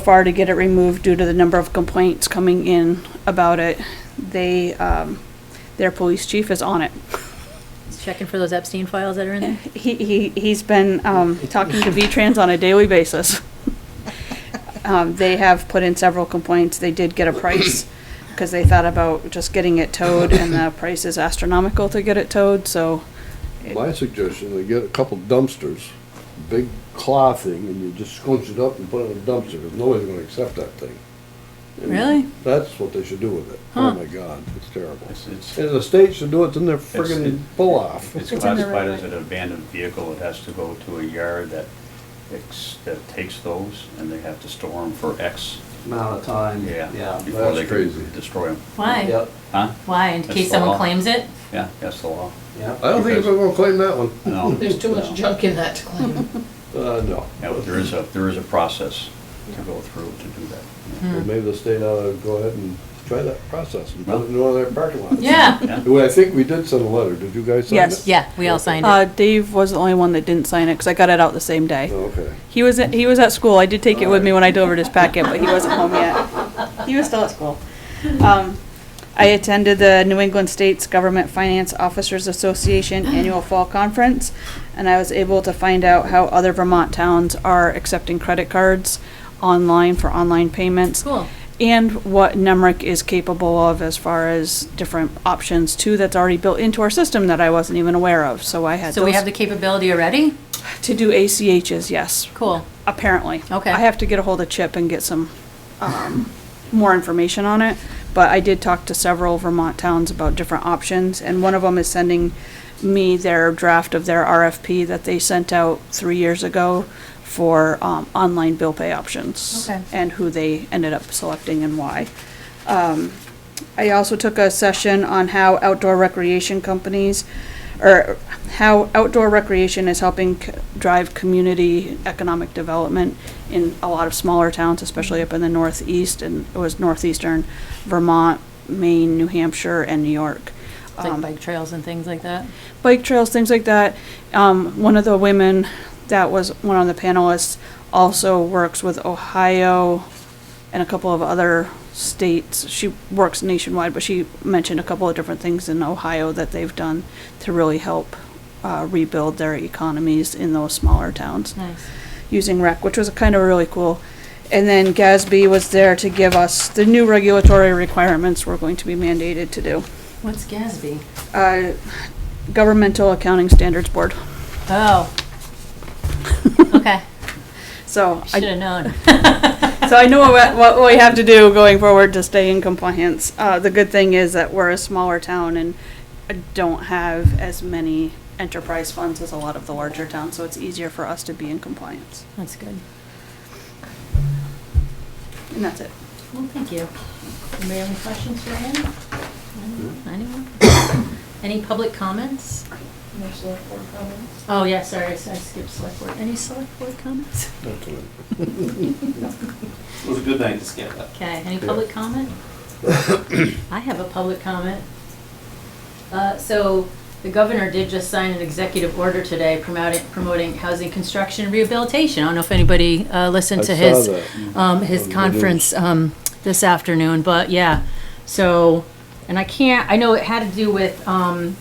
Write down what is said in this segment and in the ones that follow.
far to get it removed due to the number of complaints coming in about it. They, um, their police chief is on it. Checking for those Epstein files that are in there? He, he, he's been, um, talking to V-Trans on a daily basis. Um, they have put in several complaints. They did get a price because they thought about just getting it towed and the price is astronomical to get it towed, so. it- My suggestion, they get a couple dumpsters, big claw thing, and you just scrunch it up and put it in a dumpster, 'cause nobody's gonna accept that thing. And Really? That's what they should do with it. Huh. Oh my god, it's terrible. It's- it's- And the state should do it, then they're friggin' it- pull-off. It's It's in the right classified as an abandoned vehicle, it has to go to a yard that, ex- that takes those, and they have to store them for X, amount of time. yeah. Before That's they crazy. can destroy them, Why? Yep, huh? Why? In That's case the someone law. claims it? Yeah, that's the law. yep. I don't think they're gonna claim that one. No. There's too no. much junk in that to claim. Uh, no. Yeah, but there is a, there is a process to go through to do that. Well, maybe the state ought to go ahead and try that process and put it in one of their parking lots. Yeah. Yeah. Well, I think we did send a letter. Did you guys send Yes. it? Yeah, we all signed Uh, it. Dave was the only one that didn't sign it because I got it out the same day. Oh, Okay. He was, at- he was at school. I did take it with me when I delivered his packet, but he wasn't home yet. He was still at school. Um, I attended the New England States Government Finance Officers Association Annual Fall Conference, and I was able to find out how other Vermont towns are accepting credit cards online for online payments Cool. and what NEMRIC is capable of as far as different options too that's already built into our system that I wasn't even aware of. So I had So we have the those capability already? to do ACHs, yes, Cool. apparently. Okay. I have to get a hold of Chip and get some um, more information on it, but I did talk to several Vermont towns about different options, and one of them is sending me their draft of their RFP that they sent out three years ago for um, online bill pay options. Okay. And who they ended up selecting and why. Um, I also took a session on how outdoor recreation companies, or how outdoor recreation is helping c- drive community economic development in a lot of smaller towns, especially up in the northeast, and it was northeastern Vermont, Maine, New Hampshire, and New York. It's Like Um, bike trails and things like that? bike trails, things like that. Um, one of the women that was one of the panelists also works with Ohio and a couple of other states. She works nationwide, but she mentioned a couple of different things in Ohio that they've done to really help uh, rebuild their economies in those smaller towns Nice. using rec, which was kind of really cool. And then Gasby was there to give us the new regulatory requirements we're going to be mandated to do. What's Gatsby? Uh, Governmental Accounting Standards Board. Oh. Okay. So Should I, have known. so I know what, what we have to do going forward to stay in compliance. Uh, the good thing is that we're a smaller town and don't have as many enterprise funds as a lot of the larger towns, so it's easier for us to be in compliance. That's good. And that's it. Well, thank you. Anybody have any questions for Ann? Mm-hmm. Anyone? Any public comments? No select board comments. Oh, yeah, sorry, I skipped select board. Any select board comments? That's what I- It was a good night to skip that. Okay, any public comment? I have a public comment. Uh, So the governor did just sign an executive order today promoting, promoting housing construction and rehabilitation. I don't know if anybody uh, listened I to saw his, that. um, his Mhm. conference um, this afternoon, but yeah. So, and I can't, I know it had to do with um,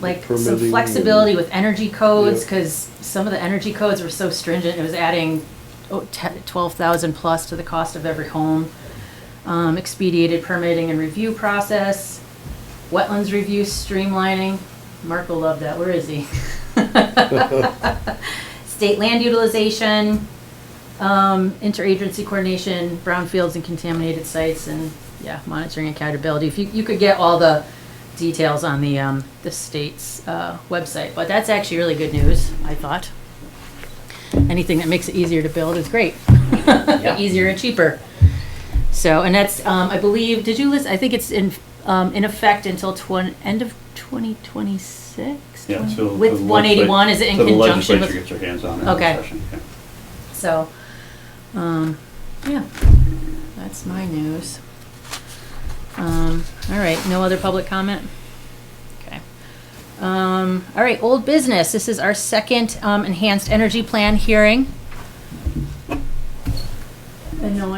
like some Permitting flexibility with energy codes, Yep. because some of the energy codes were so stringent, it was adding oh, te- 12,000 plus to the cost of every home um, expedited permitting and review process, wetlands review streamlining. Mark will love that, where is he? State land utilization, um, interagency coordination, brownfields and contaminated sites, and, yeah, monitoring accountability. If you, you could get all the details on the, um, the state's, uh, website, but that's actually really good news, I thought. Anything that makes it easier to build is great. Easier and cheaper. So, and that's, um, I believe, did you list, I think it's in, um, in effect until twen, end of twenty twenty-six? Yeah, so the With legislat- one eighty-one, is it in so the conjunction legislature with, gets their hands on it in Okay. session, yeah. so, um, yeah, that's my news. Um, all right, no other public comment? Okay. Um, all right, old business, this is our second, um, enhanced energy plan hearing. And no one